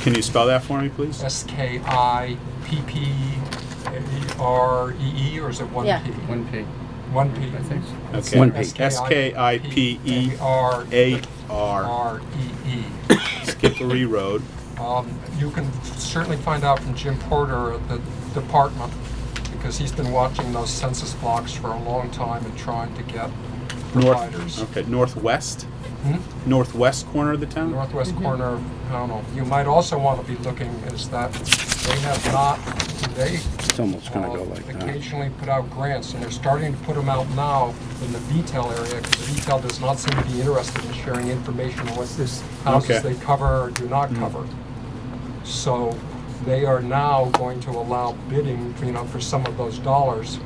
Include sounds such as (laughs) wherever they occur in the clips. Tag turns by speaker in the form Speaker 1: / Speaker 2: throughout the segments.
Speaker 1: Can you spell that for me, please?
Speaker 2: S K I P P R E E, or is it one
Speaker 3: Yeah.
Speaker 2: P?
Speaker 4: One P,
Speaker 2: One P.
Speaker 4: I think.
Speaker 1: Okay.
Speaker 5: One page.
Speaker 1: S K I P E
Speaker 2: R
Speaker 1: A R,
Speaker 2: R E E.
Speaker 1: Skippery Road.
Speaker 2: Um, You can certainly find out from Jim Porter at the department, because he's been watching those census blocks for a long time and trying to get providers.
Speaker 1: North, okay, northwest,
Speaker 2: Hmm?
Speaker 1: northwest corner of the town?
Speaker 2: northwest corner, I don't know, you might also want to be looking is that they have not, they
Speaker 5: It's almost gonna go
Speaker 2: uh,
Speaker 5: like that.
Speaker 2: occasionally put out grants, and they're starting to put them out now in the VTEL area, because VTEL does not seem to be interested in sharing information on what this,
Speaker 1: Okay.
Speaker 2: houses they cover or do
Speaker 5: Mm.
Speaker 2: not cover. So they are now going to allow bidding, you know, for some of those dollars.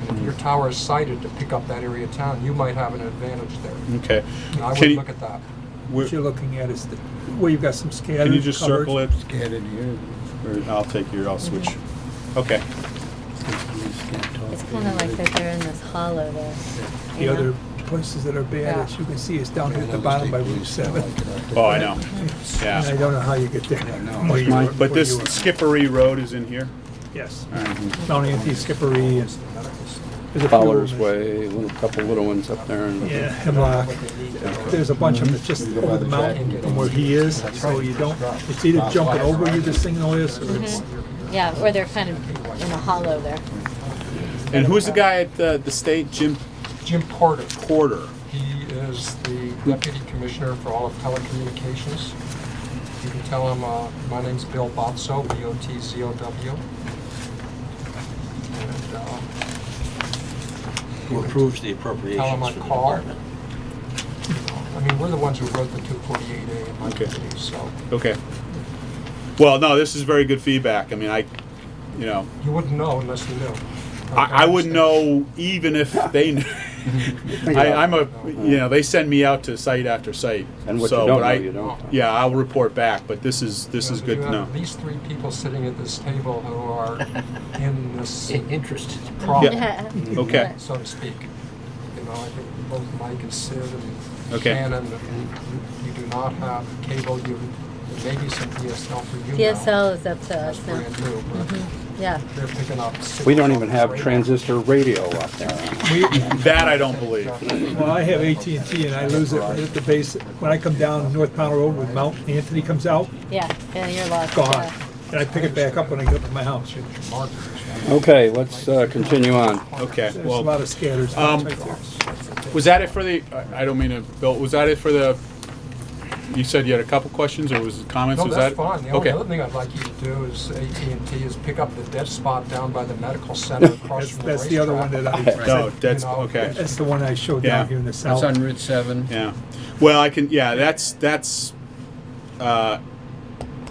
Speaker 2: And if
Speaker 5: Mm.
Speaker 2: your tower is sited to pick up that area of town, you might have an advantage there.
Speaker 1: Okay.
Speaker 2: And I
Speaker 1: Can
Speaker 2: would
Speaker 1: you-
Speaker 2: look at that.
Speaker 1: we're-
Speaker 6: What you're looking at is the, where you've got some scattered
Speaker 1: Can you just
Speaker 6: covered-
Speaker 1: circle it?
Speaker 5: Get in here.
Speaker 1: Or I'll take your, I'll switch. Okay.
Speaker 3: It's kind of like that they're in this hollow there. you
Speaker 6: The
Speaker 3: know?
Speaker 6: other places that are bad,
Speaker 3: Yeah.
Speaker 6: as you can see, is down here at the bottom by Route 7.
Speaker 1: Oh, I know.
Speaker 6: And I
Speaker 1: Yeah.
Speaker 6: don't know how you get there. from where you
Speaker 5: Mine-
Speaker 6: are-
Speaker 1: But
Speaker 6: where
Speaker 1: this
Speaker 6: you are.
Speaker 1: Skippery Road is in here?
Speaker 6: Yes,
Speaker 1: All right.
Speaker 4: Uh-huh.
Speaker 6: Mount Anthony Skippery and. there's a few
Speaker 5: Fowler's
Speaker 6: of them.
Speaker 5: Way, little, couple little ones up there and.
Speaker 6: Yeah, Hemlock. There's a bunch of them, it's just over the mountain from where he is, so you don't, it's either jumping over you, this thing and this, or it's,
Speaker 3: Yeah, or they're kind of in a hollow there.
Speaker 1: And who's the guy at the, the state? Jim
Speaker 2: Jim Porter.
Speaker 1: Porter.
Speaker 2: He is the deputy commissioner for all of telecommunications. You can tell him, uh, my name's Bill Botso, B-O-T-Z-O-W. And, uh,
Speaker 7: who approves the
Speaker 2: Tell 'em I
Speaker 7: appropriations for the
Speaker 2: called.
Speaker 7: department.
Speaker 2: I mean, we're the ones who wrote the 248A in my
Speaker 1: Okay.
Speaker 2: committee, so
Speaker 1: Okay. Well, no, this is very good feedback. I mean, I, you know,
Speaker 2: you wouldn't know unless you knew.
Speaker 1: I, I wouldn't know even if
Speaker 5: (laughs)
Speaker 1: they knew. I, I'm a, you know, they send me out to site after site.
Speaker 5: Uh-huh. And what you
Speaker 1: so,
Speaker 5: don't
Speaker 1: but
Speaker 5: know,
Speaker 1: I-
Speaker 5: you don't. know.
Speaker 1: Yeah, I'll report back, but this is, this
Speaker 2: You
Speaker 1: is
Speaker 2: know,
Speaker 1: good
Speaker 2: you
Speaker 1: to
Speaker 2: have
Speaker 1: know.
Speaker 2: At least three people sitting at this table who are in this
Speaker 7: I- Interested.
Speaker 2: problem.
Speaker 3: (laughs)
Speaker 1: Okay.
Speaker 2: so to speak. You know, I think both Mike and Sid and
Speaker 1: Okay.
Speaker 2: Shannon, and you do not have cable, you, there may be some DSL for you now.
Speaker 3: DSL is up to
Speaker 2: That's
Speaker 3: us now. Mm-hmm.
Speaker 2: brand new, but
Speaker 3: Yeah.
Speaker 2: they're picking up. six
Speaker 5: We don't even have
Speaker 2: right now.
Speaker 5: transistor radio up there.
Speaker 1: That I don't believe.
Speaker 6: well, I have AT&T and I lose it right at the base. When I come down North Pownell Road when Mount Anthony comes out,
Speaker 3: Yeah, yeah, you're lost.
Speaker 6: gone.
Speaker 3: yeah.
Speaker 6: And I pick it back up when I get to my house.
Speaker 1: Oh.
Speaker 5: Okay, let's uh, continue on.
Speaker 1: Okay,
Speaker 6: There's a lot
Speaker 1: well,
Speaker 6: of scatters
Speaker 1: um,
Speaker 6: right there.
Speaker 1: was that it for the, I I don't mean to, Bill, was that it for the, you said you had a couple questions or was it comments?
Speaker 2: No,
Speaker 1: Was that-
Speaker 2: that's fine. The
Speaker 1: Okay.
Speaker 2: only other thing I'd like you to do is AT&T is pick up the dead spot down by the
Speaker 1: (laughs)
Speaker 2: medical center across
Speaker 6: That's,
Speaker 2: from the
Speaker 6: that's the other one
Speaker 2: racetrack.
Speaker 6: that I,
Speaker 1: No,
Speaker 6: said-
Speaker 1: that's,
Speaker 2: You know,
Speaker 1: okay.
Speaker 6: that's the one I showed
Speaker 1: Yeah.
Speaker 6: down here in the
Speaker 4: That's
Speaker 6: south.
Speaker 4: on Route seven.
Speaker 1: Yeah. Well, I can, yeah, that's, that's, uh,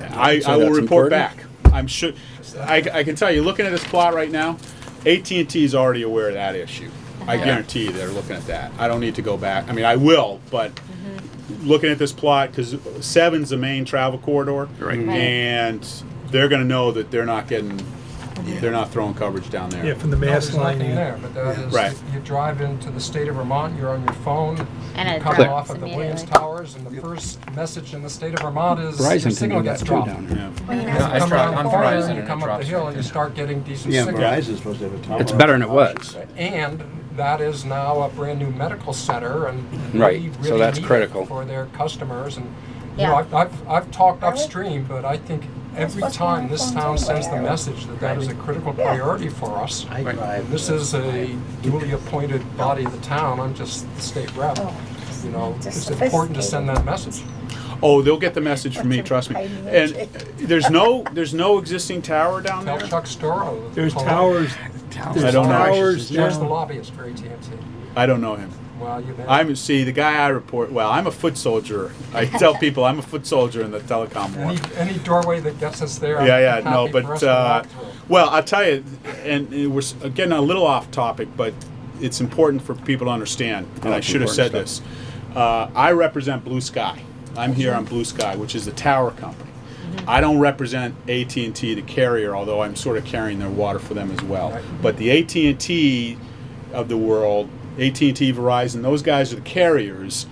Speaker 1: I,
Speaker 5: So
Speaker 1: I will
Speaker 5: that's
Speaker 1: report
Speaker 5: important?
Speaker 1: back. I'm sure, I, I can tell you, looking at this plot right now, AT&T is already aware of that issue. I guarantee you they're looking at that. I don't need to go back. I mean, I will, but
Speaker 5: Mm-hmm.
Speaker 1: looking at this plot, because seven's the main travel corridor. Right.
Speaker 3: Right.
Speaker 1: And they're gonna know that they're not getting,
Speaker 5: Mm-hmm.
Speaker 1: they're not throwing coverage down
Speaker 6: Yeah,
Speaker 1: there.
Speaker 6: from the
Speaker 2: No,
Speaker 6: mass
Speaker 2: there's
Speaker 6: line.
Speaker 2: nothing
Speaker 6: in.
Speaker 2: there, but that is,
Speaker 1: Right.
Speaker 2: you drive into the state of Vermont, you're on your phone,
Speaker 3: And
Speaker 2: you
Speaker 3: it
Speaker 2: come off
Speaker 3: drops
Speaker 2: at the Williams
Speaker 3: immediately.
Speaker 2: Towers, and the first message in the state of Vermont is your
Speaker 5: Verizon can
Speaker 2: signal
Speaker 5: do
Speaker 2: gets
Speaker 5: that too
Speaker 2: dropped.
Speaker 5: down here.
Speaker 4: Yeah, I
Speaker 2: Come
Speaker 4: tried,
Speaker 2: around
Speaker 4: I'm
Speaker 2: the corner,
Speaker 4: Verizon and
Speaker 2: you
Speaker 4: it
Speaker 2: come up the
Speaker 4: drops
Speaker 2: hill,
Speaker 4: right
Speaker 2: and you
Speaker 4: there.
Speaker 2: start getting decent
Speaker 5: Yeah,
Speaker 2: signal.
Speaker 8: Verizon's supposed to have a tower.
Speaker 5: It's better than it was.
Speaker 2: And that is now a brand-new medical center, and
Speaker 5: Right,
Speaker 2: we
Speaker 5: so
Speaker 2: really
Speaker 5: that's
Speaker 2: need it
Speaker 5: critical.
Speaker 2: For their customers, and, you
Speaker 3: Yeah.
Speaker 2: know, I've- I've, I've talked upstream, but I think every
Speaker 8: supposed to be on
Speaker 2: time this
Speaker 8: phones
Speaker 2: town sends the
Speaker 8: anyway.
Speaker 2: message that that is a critical priority for us.
Speaker 7: I drive.
Speaker 2: This
Speaker 7: uh,
Speaker 2: is a duly appointed body of the town, I'm just the state rep. You know, it's important to send that message.
Speaker 1: Oh, they'll get the message from me, trust me. And uh, there's no, there's no existing tower down
Speaker 2: Tell
Speaker 1: there?
Speaker 2: Chuck Storrow.
Speaker 6: There's towers,
Speaker 1: I
Speaker 6: there's
Speaker 1: don't know.
Speaker 6: towers
Speaker 2: There's the
Speaker 6: down.
Speaker 2: lobbyist for at and
Speaker 1: I don't know him.
Speaker 2: Well, you bet.
Speaker 1: I'm see the guy I report. Well, I'm a foot soldier. I tell people I'm a foot soldier in the telecom war.
Speaker 2: Any, any doorway that gets us there. I'm
Speaker 1: Yeah, yeah, no,
Speaker 2: happy for us
Speaker 1: but
Speaker 2: to
Speaker 1: uh,
Speaker 2: walk through.
Speaker 1: well, I'll tell you, and uh, we're s- getting a little off topic, but it's important for people to understand. And I
Speaker 5: Oh, it's
Speaker 1: should have said
Speaker 5: important
Speaker 1: this. Uh, I represent Blue Sky. I'm here on Blue Sky, which is the tower company.
Speaker 2: Mm-hmm.
Speaker 1: I don't represent AT&T, the carrier, although I'm sort of carrying their water for them as well.
Speaker 2: Right.
Speaker 1: But the AT&T of the world, AT&T, Verizon, those guys are the carriers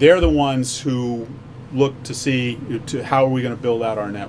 Speaker 1: they're the ones who look to see to how are we going to build out our network